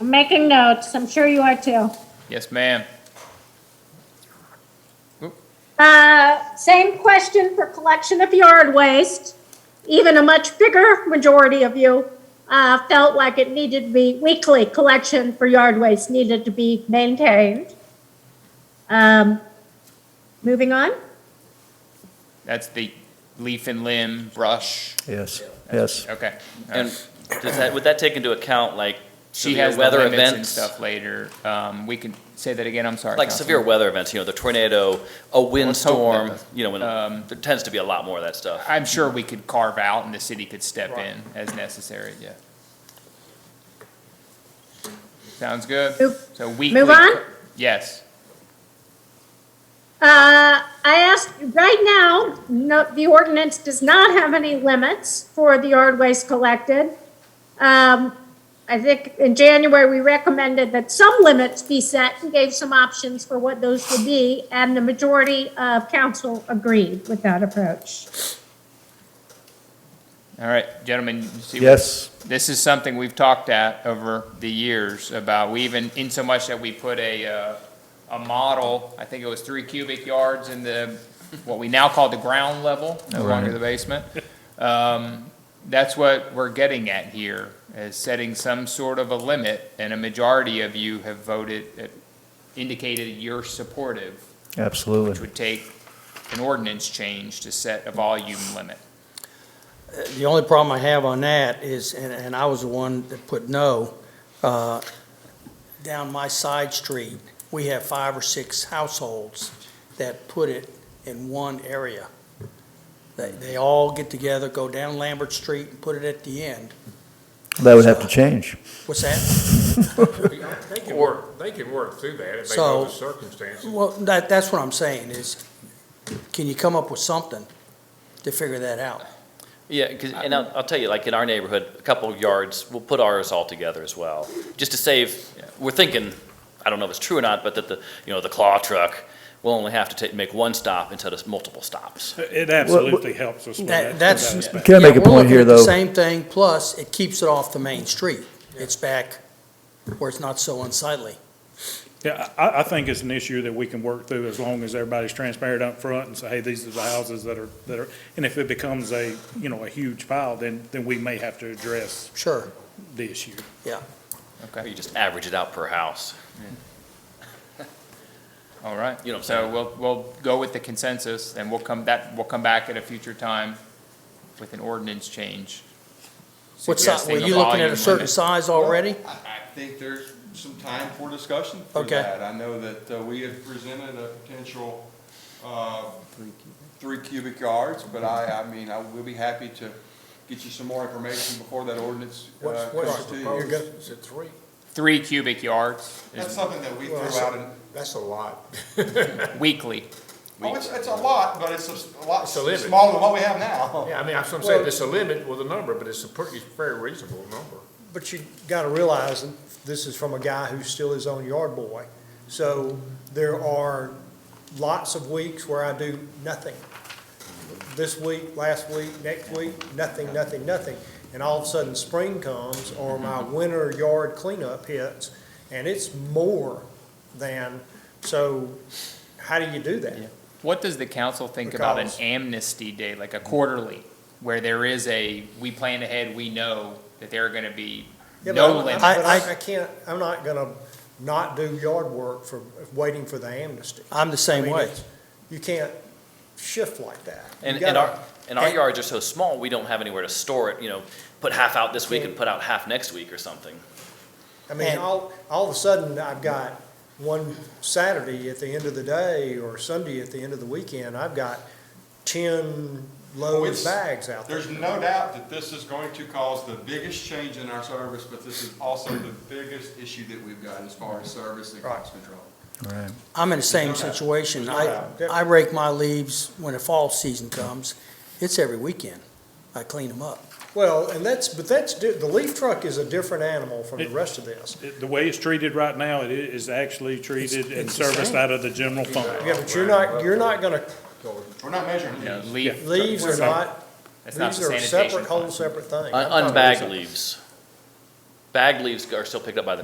I'm making notes, I'm sure you are too. Yes, ma'am. Uh, Same question for collection of yard waste. Even a much bigger majority of you uh, felt like it needed to be, weekly collection for yard waste needed to be maintained. Um, Moving on, That's the leaf and limb brush. Yes, yes. Okay. And does that, would that take into account like She severe has the weather limits and events? stuff later. Um, we can say that again. I'm sorry. Like Councilman. severe weather events, you know, the tornado, a hope that windstorm, doesn't- you know, when, Um, there tends to be a lot more of that stuff. I'm sure we could carve out and the city could step in as necessary, yeah. Sounds good. Move- So weekly. move on? Yes. Uh, I asked, right now, no, the ordinance does not have any limits for the yard waste collected. Um, I think in January, we recommended that some limits be set and gave some options for what those would be, and the majority of council agreed with that approach. All right, gentlemen, you see. what- Yes, This is something we've talked at over the years about, we even, in so much that we put a, uh, a model, I think it was three cubic yards in the, what we now call the ground level, no longer the basement. Um, That's what we're getting at here, is setting some sort of a limit, and a majority of you have voted, uh, indicated you're supportive, which absolutely. would take an ordinance change to set a volume limit. The only problem I have on that is, and, and I was the one that put no, uh, down my side street, we have five or six households that put it in one area. They, they all get together, go down Lambert Street and put it at the end. That would have to change. What's that? They can work, they can work through that if they know the circumstances. Well, that, that's what I'm saying is, can you come up with something to figure that out? Yeah, 'cause- and I'll, I'll tell you, like in our neighborhood, a couple yards, we'll put ours all together as well, just to save, we're thinking, I don't know if it's true or not, but that the, you know, the claw truck will only have to take, make one stop instead of multiple stops. It absolutely helps us with that. That, that's. with that. Can I make a Yeah, we're point here, looking at the though? Same thing, plus it keeps it off the main street. It's back where it's not so unsightly. Yeah, I, I think it's an issue that we can work through as long as everybody's transparent up front and say, hey, these are the houses that are, that are, and if it becomes a, you know, a huge pile, then, then we may have to address Sure, the issue. Or you just average it out per house. All right. You know what I'm So saying? we'll, we'll go with the consensus and we'll come that, we'll come back at a future time with an ordinance change. What size, suggesting were you looking at volume a certain limit. size already? Well, I I think there's some time for discussion for Okay. that. I know that uh, we had presented a potential uh, three cubic yards, but I, I mean, I will be happy to get you some more information before that ordinance uh, What's, comes what's to the you. proposal? Is it three? Three cubic yards is That's something that we threw Well, that's a- out, in- That's a lot. weekly. oh, it's, it's a lot, but it's a s- a lot It's a limit. smaller than what we have now. Yeah, I mean, that's what I'm saying, it's a limit with a number, but it's a pretty, very reasonable number. But you gotta realize that this is from a guy who's still his own yard boy. So there are lots of weeks where I do nothing. This week, last week, next week, nothing, nothing, nothing. And all of a sudden, spring comes or my Mm-hmm. winter yard cleanup hits and it's more than, so how do you do that? What does the council think about an Because- amnesty day, like a quarterly, where there is a, we plan ahead, we know that there are gonna be Yeah, no but limit? I- But I- I, I can't, I'm not gonna not do yard work for, waiting for the amnesty. I'm the I same mean, way. it's- You can't shift like that. You And, and gotta- our, and our yards are so small, we don't have anywhere to store it, you know, put half out this week and put out half next week or something. I mean, and- all, all of a sudden, I've got one Saturday at the end of the day or Sunday at the end of the weekend, I've got ten Oh, load it's- of bags out there. There's no doubt that this is going to cause the biggest change in our service, but this is also the biggest issue that we've got as far as service and cost control. Right. I'm in the same situation. I, Yeah. I rake my leaves when the fall season comes. It's every weekend. I clean them up. Well, and that's, but that's, di- the leaf truck is a different animal from the It- rest of this. It- The way it's treated right now, it is actually treated and it's the serviced same. out of the general fund. Oh, Yeah, but you're not, you're not gonna, We're not measuring You know, these. leave, leaves are not, that's not these the are a sanitation. separate, whole fund. separate thing. Un- Unbagged leaves. Bagged leaves are still picked up by the